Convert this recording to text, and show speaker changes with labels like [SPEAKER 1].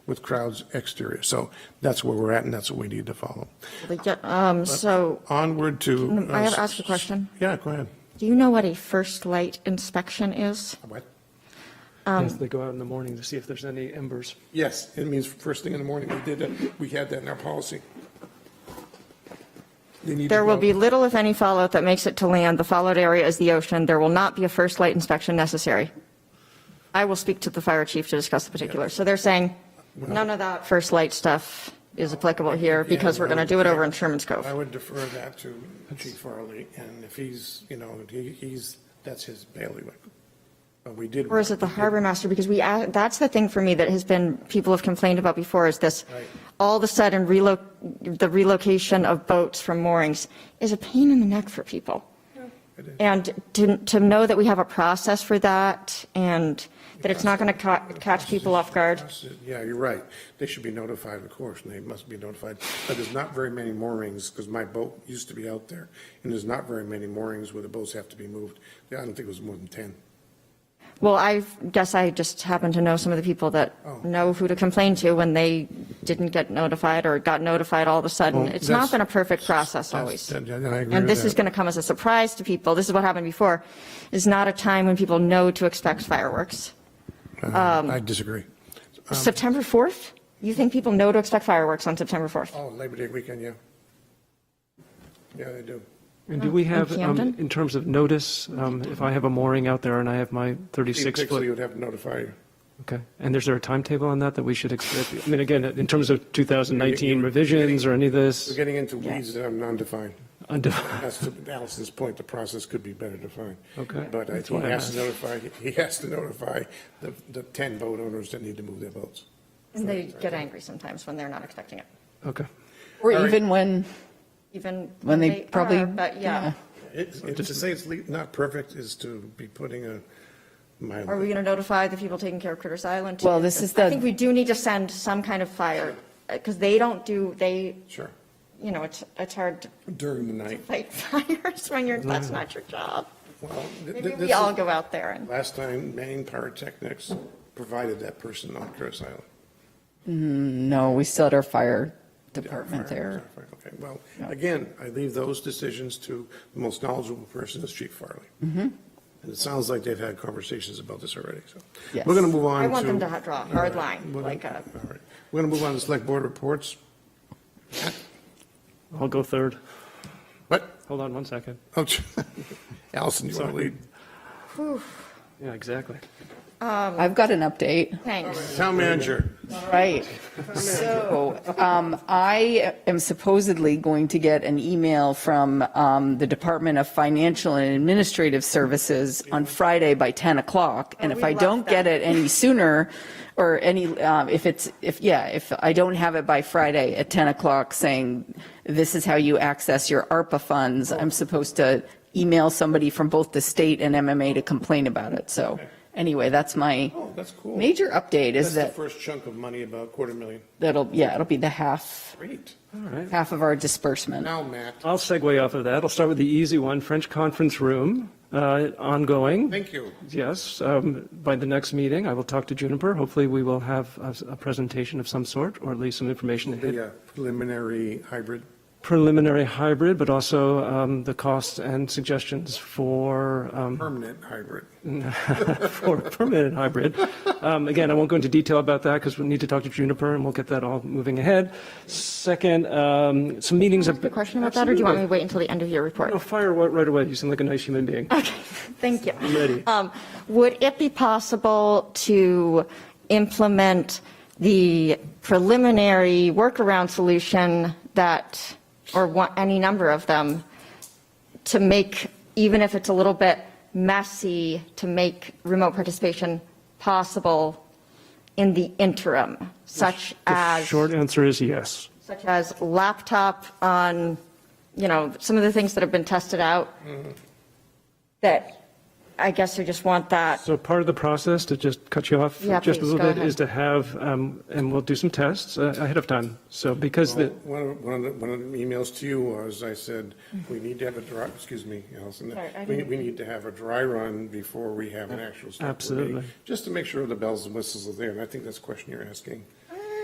[SPEAKER 1] with crowds exterior. So that's where we're at, and that's what we need to follow.
[SPEAKER 2] We get- um, So,
[SPEAKER 1] Onward to.
[SPEAKER 2] Can I have-
[SPEAKER 1] uh,
[SPEAKER 2] ask a question?
[SPEAKER 1] Yeah, go ahead.
[SPEAKER 2] do you know what a first light inspection is?
[SPEAKER 1] What?
[SPEAKER 3] Yes, they go out in the morning to see if there's any embers.
[SPEAKER 1] Yes, it means first thing in the morning. We did that, we had that in our policy. They need to
[SPEAKER 2] There will
[SPEAKER 1] go-
[SPEAKER 2] be little, if any, fallout that makes it to land. The fallout area is the ocean. There will not be a first light inspection necessary. I will speak to the fire chief to discuss the particulars. So they're saying, none of that first light stuff is applicable here because we're going to do it over in Sherman's
[SPEAKER 1] I
[SPEAKER 2] Cove.
[SPEAKER 1] would defer that to Chief Farley, and if he's, you know, he- he's, that's his bailiwick. But we did.
[SPEAKER 2] Or is it the harbor master? Because we, a- that's the thing for me that has been, people have complained about before is this,
[SPEAKER 1] Right.
[SPEAKER 2] all of a sudden relo, the relocation of boats from moorings is a pain in the neck for people.
[SPEAKER 1] It is.
[SPEAKER 2] And to, to know that we have a process for that and that it's not going to ca- catch people off guard.
[SPEAKER 1] Yeah, you're right. They should be notified, of course, and they must be notified. But there's not very many moorings, because my boat used to be out there, and there's not very many moorings where the boats have to be moved. I don't think it was more than 10.
[SPEAKER 2] Well, I guess I just happen to know some of the people that
[SPEAKER 1] Oh.
[SPEAKER 2] know who to complain to when they didn't get notified or got notified all of a sudden.
[SPEAKER 1] Well,
[SPEAKER 2] It's not
[SPEAKER 1] that's-
[SPEAKER 2] been a perfect process
[SPEAKER 1] That's-
[SPEAKER 2] always.
[SPEAKER 1] that- that- I agree
[SPEAKER 2] And
[SPEAKER 1] with
[SPEAKER 2] this is
[SPEAKER 1] that.
[SPEAKER 2] going to come as a surprise to people. This is what happened before. It's not a time when people know to expect fireworks. um,
[SPEAKER 1] Uh, I disagree. Um,
[SPEAKER 2] September 4th? You think people know to expect fireworks on September 4th?
[SPEAKER 1] Oh, Labor Day weekend, yeah. Yeah, they do.
[SPEAKER 3] And do we have, um,
[SPEAKER 2] Camden?
[SPEAKER 3] in terms of notice, um, if I have a mooring out there and I have my
[SPEAKER 1] Chief
[SPEAKER 3] 36
[SPEAKER 1] Pixley
[SPEAKER 3] foot?
[SPEAKER 1] would have to notify you.
[SPEAKER 3] Okay, and is there a timetable on that that we should expect? I mean, again, in terms of 2019 revisions or any of
[SPEAKER 1] We're
[SPEAKER 3] this?
[SPEAKER 1] getting into weeds that are non-defined.
[SPEAKER 3] unde-
[SPEAKER 1] That's to Allison's point, the process could be better defined.
[SPEAKER 3] Okay.
[SPEAKER 1] But I
[SPEAKER 3] That's
[SPEAKER 1] think
[SPEAKER 3] why
[SPEAKER 1] he
[SPEAKER 3] I
[SPEAKER 1] has to
[SPEAKER 3] asked.
[SPEAKER 1] notify, he has to notify the, the 10 boat owners that need to move their boats.
[SPEAKER 2] And they get angry sometimes when they're not expecting it.
[SPEAKER 3] Okay,
[SPEAKER 1] All
[SPEAKER 4] Or
[SPEAKER 1] right.
[SPEAKER 4] even when,
[SPEAKER 2] Even
[SPEAKER 4] when they probably.
[SPEAKER 2] are, But yeah.
[SPEAKER 1] It's- it's- To say it's le- not perfect is to be putting a, my,
[SPEAKER 2] Are we going to notify the people taking care of Critters Island? too?
[SPEAKER 4] Well, this is
[SPEAKER 2] I
[SPEAKER 4] the-
[SPEAKER 2] think we do need to send some kind of fire, because they don't do, they,
[SPEAKER 1] sure,
[SPEAKER 2] you know, it's, it's hard to
[SPEAKER 1] during the night.
[SPEAKER 2] fight fires when you're, that's not your job.
[SPEAKER 1] Well, th- th-
[SPEAKER 2] Maybe
[SPEAKER 1] this
[SPEAKER 2] we all
[SPEAKER 1] is-
[SPEAKER 2] go out there and,
[SPEAKER 1] Last time, Maine Pyrotechnics provided that person on Curtis Island.
[SPEAKER 4] No, we still had our fire department there.
[SPEAKER 1] Okay, well, again, I leave those decisions to the most knowledgeable person is Chief Farley.
[SPEAKER 4] Mm-hmm.
[SPEAKER 1] And it sounds like they've had conversations about this already, so.
[SPEAKER 4] Yes.
[SPEAKER 1] We're going to move on to.
[SPEAKER 2] I want them to ha- draw a hard line,
[SPEAKER 1] We're gonna-
[SPEAKER 2] like uh, a-
[SPEAKER 1] All right, we're going to move on to select board reports.
[SPEAKER 3] I'll go third.
[SPEAKER 1] What?
[SPEAKER 3] Hold on one second.
[SPEAKER 1] Oh, Allison, you want to
[SPEAKER 3] Sorry.
[SPEAKER 1] lead?
[SPEAKER 3] Yeah, exactly.
[SPEAKER 4] I've got an update.
[SPEAKER 2] thanks.
[SPEAKER 1] Town manager,
[SPEAKER 4] Right. So um, I am supposedly going to get an email from um, the Department of Financial and Administrative Services on Friday by 10 o'clock. And
[SPEAKER 2] Oh,
[SPEAKER 4] if
[SPEAKER 2] we
[SPEAKER 4] I
[SPEAKER 2] love
[SPEAKER 4] don't get
[SPEAKER 2] that.
[SPEAKER 4] it any sooner, or any, um, if it's, if, yeah, if I don't have it by Friday at 10 o'clock saying, this is how you access your ARPA
[SPEAKER 1] Oh.
[SPEAKER 4] funds, I'm supposed to email somebody from both the state and MMA to complain about it. So anyway, that's my
[SPEAKER 1] Oh, that's cool.
[SPEAKER 4] major update
[SPEAKER 1] that's
[SPEAKER 4] is
[SPEAKER 1] the
[SPEAKER 4] that
[SPEAKER 1] first chunk of money, about quarter million.
[SPEAKER 4] that'll, yeah, it'll be the half,
[SPEAKER 1] Great.
[SPEAKER 3] All right.
[SPEAKER 4] half of our disbursement.
[SPEAKER 1] Now, Matt,
[SPEAKER 3] I'll segue off of that. I'll start with the easy one, French Conference Room, uh, ongoing.
[SPEAKER 1] thank you.
[SPEAKER 3] Yes, um, by the next meeting, I will talk to Juniper. Hopefully, we will have a, a presentation of some sort, or at least some information that hit
[SPEAKER 1] The uh, preliminary hybrid,
[SPEAKER 3] preliminary hybrid, but also um, the costs and suggestions for um,
[SPEAKER 1] permanent hybrid.
[SPEAKER 3] for permanent hybrid. Um, Again, I won't go into detail about that because we need to talk to Juniper, and we'll get that all moving ahead. Second, um, some meetings.
[SPEAKER 2] Ask a question about that, or do you want me to wait until the end of your report?
[SPEAKER 3] No, fire right right away. You seem like a nice human being.
[SPEAKER 2] Thank you.
[SPEAKER 3] Ready.
[SPEAKER 2] Um, Would it be possible to implement the preliminary workaround solution that, or one- any number of them, to make, even if it's a little bit messy, to make remote participation possible in the interim, such
[SPEAKER 3] The
[SPEAKER 2] as?
[SPEAKER 3] short answer is yes.
[SPEAKER 2] such as laptop on, you know, some of the things that have been tested out, that I guess we just want that,
[SPEAKER 3] So part of the process, to just cut you off
[SPEAKER 2] Yeah,
[SPEAKER 3] just a
[SPEAKER 2] please,
[SPEAKER 3] little
[SPEAKER 2] go
[SPEAKER 3] bit,
[SPEAKER 2] ahead.
[SPEAKER 3] is to have, um, and we'll do some tests uh, ahead of time. So because the,
[SPEAKER 1] One of, one of, the- one of the emails to you was, I said, we need to have a dry, excuse me, Allison,
[SPEAKER 2] Sorry, I
[SPEAKER 1] we,
[SPEAKER 2] didn't-
[SPEAKER 1] we need to have a dry run before we have an actual select board meeting,
[SPEAKER 3] Absolutely.
[SPEAKER 1] Just to make sure the bells and whistles are there, and I think that's the question you're asking.